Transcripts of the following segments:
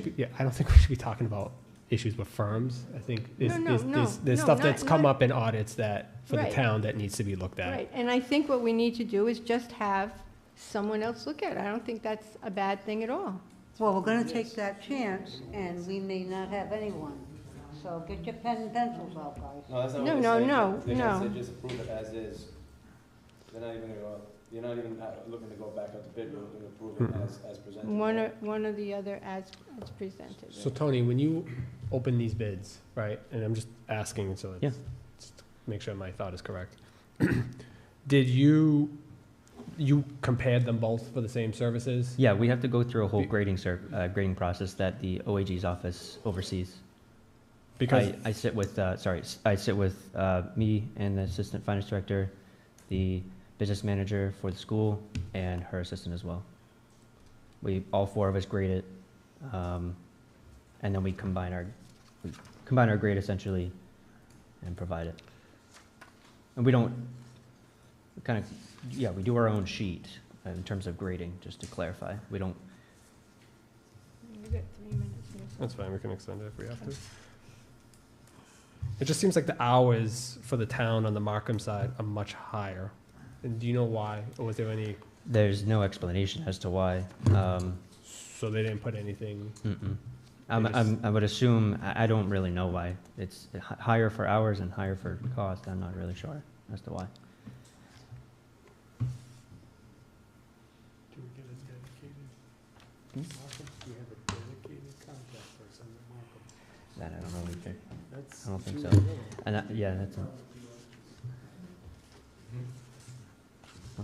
should be, yeah, I don't think we should be talking about issues with firms. I think there's, No, no, there's- there's, no, there's no, stuff not- that's come not- up in audits that, for the Right. town that needs to be looked at. Right, and I think what we need to do is just have someone else look at it. I don't think that's a bad thing at all. Well, we're gonna take that chance, and we may not have anyone, so get your pen and pencils out, guys. No, that's not No, what no, they're saying. no, They just no. said just approve it as is. They're not even gonna go, you're not even uh, looking to go back out to bid, you're looking to approve Hmm. it as, as presented. One or, one or the other as, as presented. So Tony, when you open these bids, right, and I'm just asking, so Yeah. it's, just to make sure my thought is correct. Did you, you compared them both for the same services? Yeah, we have to go through a whole Be- grading ser, uh, grading process that the OAG's office oversees. Because, I, I sit with, uh, sorry, s- I sit with, uh, me and the assistant finance director, the business manager for the school, and her assistant as well. We, all four of us grade it, um, and then we combine our, we combine our grade essentially and provide it. And we don't, we kind of, yeah, we do our own sheet in terms of grading, just to clarify. We don't You got three minutes. Melissa. Oh, that's fine, we can extend it if we have to. It just seems like the hours for the town on the Markham side are much higher. And do you know why? Or was there any, There's no explanation as to why. Um, so they didn't put anything? mm-mm. I'm, They just- I'm, I would assume, I, I don't really know why. It's h- higher for hours and higher for cost. I'm not really sure as to why. Do we get a dedicated? Hmm? Markham, do we have a dedicated contact person at Markham? That I don't know either. That's I don't think too so. little. And I, yeah, that's, a- Hmm.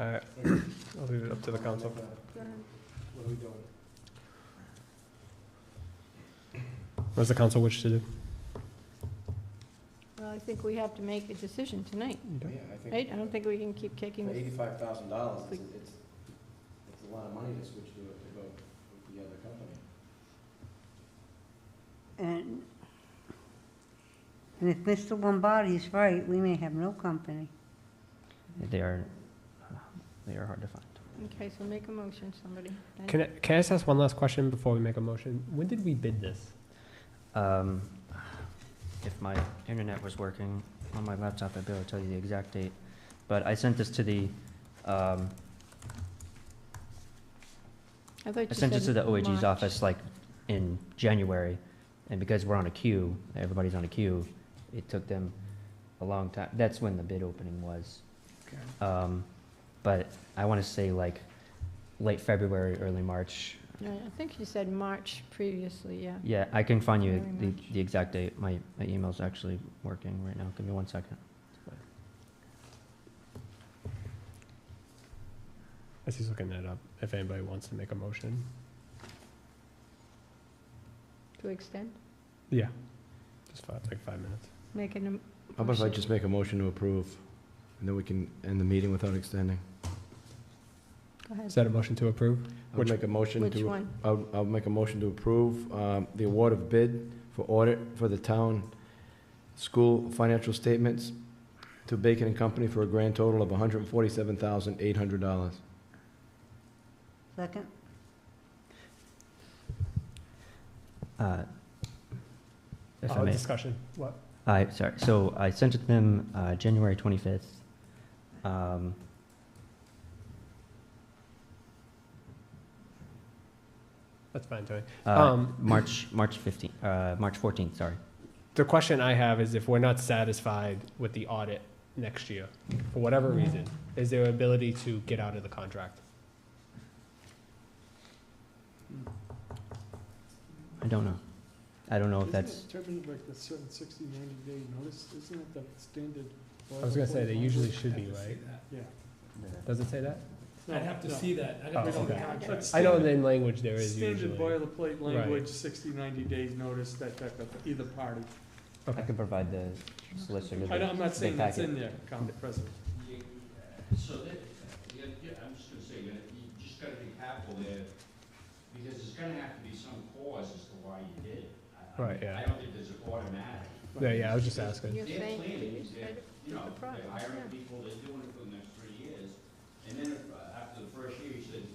All right, I'll leave it up to the council. What are we doing? What's the council wish to do? Well, I think we have to make a decision tonight, Yeah, I right? think, I don't think we can keep kicking for this. eighty-five thousand dollars, it's, it's, it's a lot of money to switch to, to go with the other company. And, and if Mr. Lombardi's right, we may have no company. they are, they are hard to find. Okay, so make a motion, somebody. Then- Can I, can I just ask one last question before we make a motion? When did we bid this? Um, if my internet was working on my laptop, I'd be able to tell you the exact date. But I sent this to the, um, I thought I you sent it said to the OAG's March. office like in January, and because we're on a queue, everybody's on a queue, it took them a long time. That's when the bid opening was. Um, but I wanna say like late February, early March. Yeah, I think you said March previously, yeah. Yeah, I can find you Early the, March. the exact date. My, my email's actually working right now. Give me one second. As he's looking that up, if anybody wants to make a motion. To extend, Yeah. Just five, like five minutes. make an. How about if I just make a motion to approve, and then we can end the meeting without extending? Go ahead. Is that a motion to approve? I'll Which- make a motion Which to, one? I'll, I'll make a motion to approve, um, the award of bid for audit for the town school financial statements to Bacon and Company for a grand total of hundred and forty-seven thousand, eight hundred dollars. Second? Uh, If I Oh, Uh, may. Discussion. What? I, sorry, so I sent it to them, uh, January twenty-fifth. Um, That's fine, Tony. uh, Um, March, March fifteenth, uh, March fourteenth, sorry. The question I have is if we're not satisfied with the audit next year, for whatever reason, is there ability to get out of the contract? I don't know. I don't know if that's, Isn't it typically like a certain 60, 90 day notice? Isn't it the standard? I was gonna say, they usually should be, Have to see right? that. Yeah. Does it say that? No, I'd have to no. see that. I'd Oh, have to see the okay. contract. I know in language there is Standard usually. boilerplate Right. language, 60, 90 days notice, that type of, either party. I could provide the solicitor. I the- don't- I'm not the saying that's packet. in there, Council President. Uh, So that, uh, yeah, yeah, I'm just gonna say, you know, you just gotta be careful there, because there's gonna have to be some cause as to why you did it. I- I- Right, yeah. I don't think there's an automatic, Yeah, yeah, I was just asking. You're They're saying, planning, you just they're- read it with you know, the they're process, yeah. hiring people, they're doing it for the next three years, and then if, uh, after after the first year, you said,